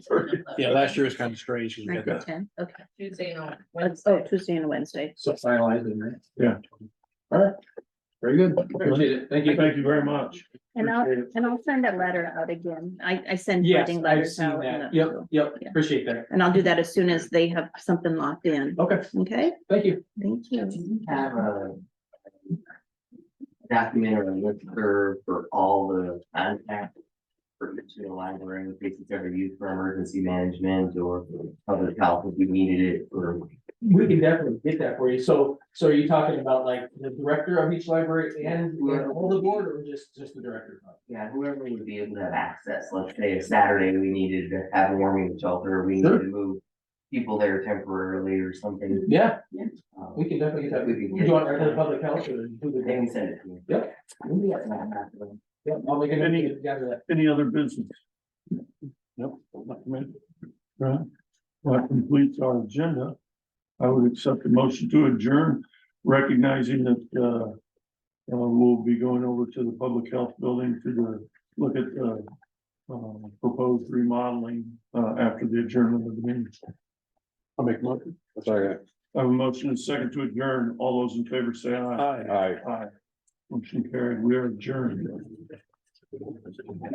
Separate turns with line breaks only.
Yeah, last year was kind of strange. 'cause we
Nine
had
to
that.
ten, okay.
Tuesday and
Oh,
Wednesday.
Tuesday and Wednesday.
So finalizing, right?
Yeah.
All right. Very good.
Appreciate
it. Thank you.
Thank you very much.
And I'll,
Appreciate it.
and I'll send that letter out again. I, I send
Yes,
writing
I've
letters
seen
out. and
that.
then-
Yep, yep,
Yeah.
appreciate that.
And I'll do that as soon as they have something locked in,
Okay,
okay?
thank you.
Thank
Do
you.
you have a documentary listserv for all the contact for each of the library, in case it's ever used for emergency management or public health if you needed it or
We can definitely get that for you. So, so are you talking about like the director of each library and and all the board or just, just the director?
yeah, whoever would be able to have access. Let's say if Saturday we needed to have a warming shelter, we needed
Sure.
to move people there temporarily or something.
Yeah,
um,
we can definitely get that.
We can
Do you want
get-
to the public health or who
They
the?
can send it to me.
Yep. Yeah, I'll make it, gather that.
Any other business? Nope. not committed. Right. Well, that completes our agenda. I would accept the motion to adjourn, recognizing that, uh, uh, we'll be going over to the public health building to the, look at, the uh, proposed remodeling, uh, after the adjournment of the meeting. I'll make a motion.
Sorry.
I have a motion and a second to adjourn. All those in favor say aye.
Aye.
Aye. Motion carried. We are adjourned.